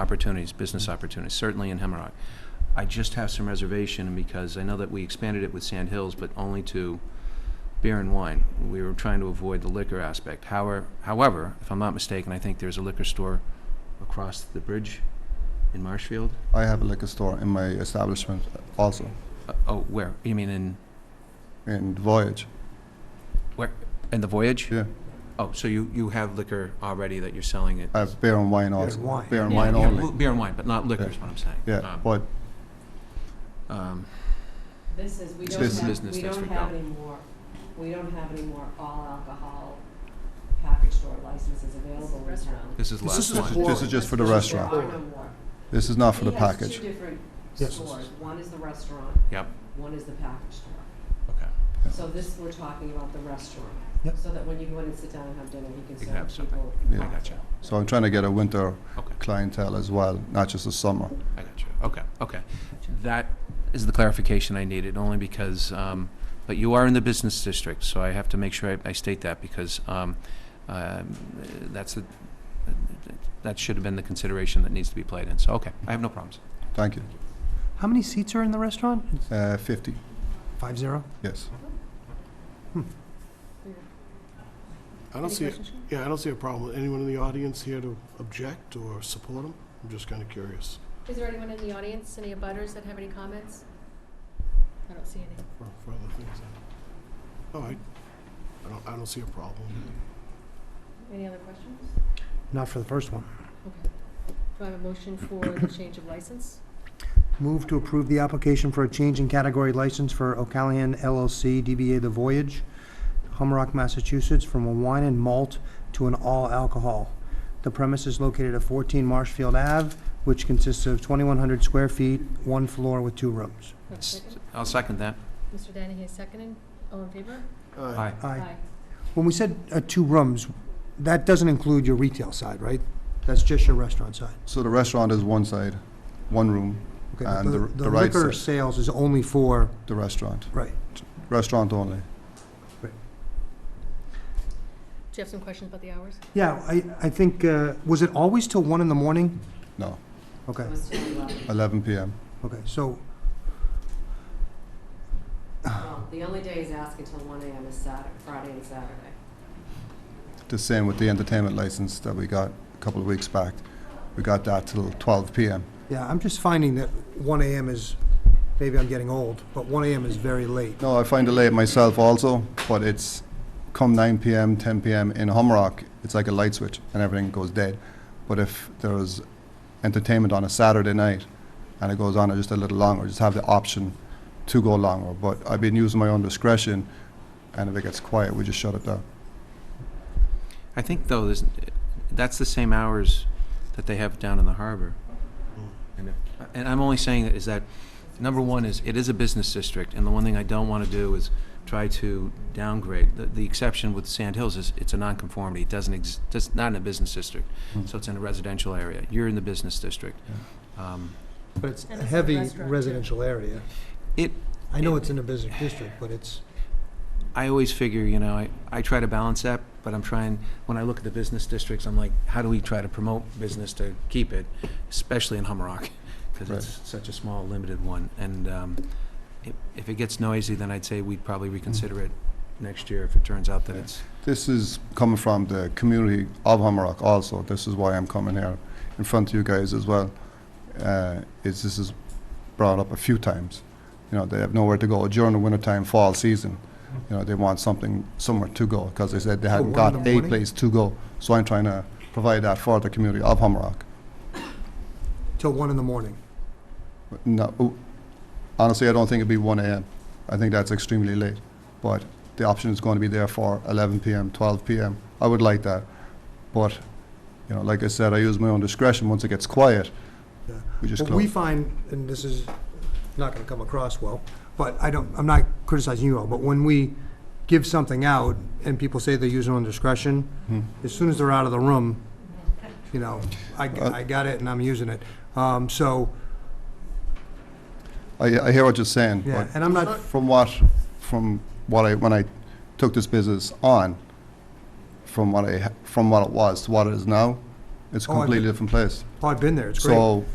opportunities, business Mm-hmm. opportunities, certainly in Hemlock. I just have some reservation because I know that we expanded it with Sand Hills, but only to beer and wine. We were trying to avoid the liquor aspect. However, however, if I'm not mistaken, I think there's a liquor store across the bridge in Marshfield. I have a liquor store in my establishment also, Uh, oh, where? You mean in in Voyage. where? In the Voyage? Yeah, Oh, so you, you have liquor already that you're selling at? I have beer and wine and also. wine. Beer Uh, and Yeah, wine yeah, only. Beer and wine, but not liquor is what I'm saying. Yeah, Um, but um, This is, we It's don't business. have, Business we don't district, have no. any more, we don't have any more all alcohol package store licenses available in town. This is This last is just one. one. this is just for the There are restaurant. no more. This is not for the He has two package. different Yes. stores, one is the restaurant, Yep, one is the package store. okay. So this, we're talking about the restaurant. Yep. So that when you go in and sit down and have dinner, he You can can have serve something. people. I Yeah. gotcha, So I'm trying to get a winter okay. clientele as well, not just the summer. I got you. Okay, okay. That is the clarification I needed, only because, um, but you are in the business district, so I have to make sure I, I state that because, um, um, that's the, that should have been the consideration that needs to be played in. So, okay, I have no problems. Thank you. How many seats are in the restaurant? It's Uh, Fifty, Five zero? yes. I don't see, yeah, I don't see a problem. Anyone in the audience here to object or support them? I'm just kind of curious. Is there anyone in the audience, any abutters that have any comments? I don't see any. for- for other things. All right. I don't, I don't see a problem. Any other questions? Not for the first one. Okay. Do I have a motion for the change of license? Move to approve the application for a change in category license for O'Callaghan LLC, DBA The Voyage, Humrock, Massachusetts, from a wine and malt to an all alcohol. The premise is located at 14 Marshfield Ave, which consists of 2,100 square feet, one floor with two rooms. Do I have a second? I'll second that. Mr. Danahy is seconded. All in favor? Aye. Aye. When we said uh, two rooms, that doesn't include your retail side, right? That's just your restaurant side? So the restaurant is one side, one room, Okay, And but the- the the right liquor side. sales is only for, the restaurant, right. restaurant only. Do you have some questions about the hours? Yeah, I, I think, uh, was it always till one in the morning? No, Okay, It was till eleven. eleven PM. okay, so, Well, the only day he's asking till one AM is Saturday, Friday and Saturday. The same with the entertainment license that we got a couple of weeks back. We got that till twelve PM. yeah, I'm just finding that one AM is, maybe I'm getting old, but one AM is very late. No, I find it late myself also, but it's come 9 p.m., 10 p.m. in Humrock, it's like a light switch and everything goes dead. But if there's entertainment on a Saturday night and it goes on just a little longer, just have the option to go longer. But I've been using my own discretion, and if it gets quiet, we just shut it down. I think though, there's, that's the same hours that they have down in the harbor. And if- and I'm only saying is that, number one is, it is a business district, and the one thing I don't want to do is try to downgrade. The, the exception with Sand Hills is, it's a nonconformity, it doesn't ex, it's not in a business district, Hmm. so it's in a residential area. You're in the business district. Um, But it's And a it's a heavy restaurant, too. residential area. It- I know it's in a business district, but it's, I always figure, you know, I, I try to balance that, but I'm trying, when I look at the business districts, I'm like, how do we try to promote business to keep it, especially in Hummerock? Because it's such a small, limited one. And um, if, if it gets noisy, then I'd say we'd probably reconsider it next year if it turns out that Yeah. it's, This is coming from the community of Humrock also. This is why I'm coming here in front of you guys as well. Uh, is this is brought up a few times. You know, they have nowhere to go during the wintertime, fall season. You know, they want something, somewhere to go, because they said they So hadn't Oh, one in got the a morning? place to go. So I'm trying to provide that for the community of Humrock. till one in the morning. But No, oh, honestly, I don't think it'd be one AM. I think that's extremely late. But the option is going to be there for eleven PM, twelve PM. I would like that. But, you know, like I said, I use my own discretion. Once it gets quiet, Yeah. we just What we close. find, and this is not gonna come across well, but I don't, I'm not criticizing you all, but when we give something out and people say they're using on discretion, Hmm. as soon as they're out of the room, you know, I, Uh, I got it and I'm using it. Um, so, I, I hear what you're saying, yeah, but and I'm not, from what, from what I, when I took this business on, from what I, ha- from what it was to what it is now, It's a Oh, I- completely different place. Oh, I've been there, it's great. So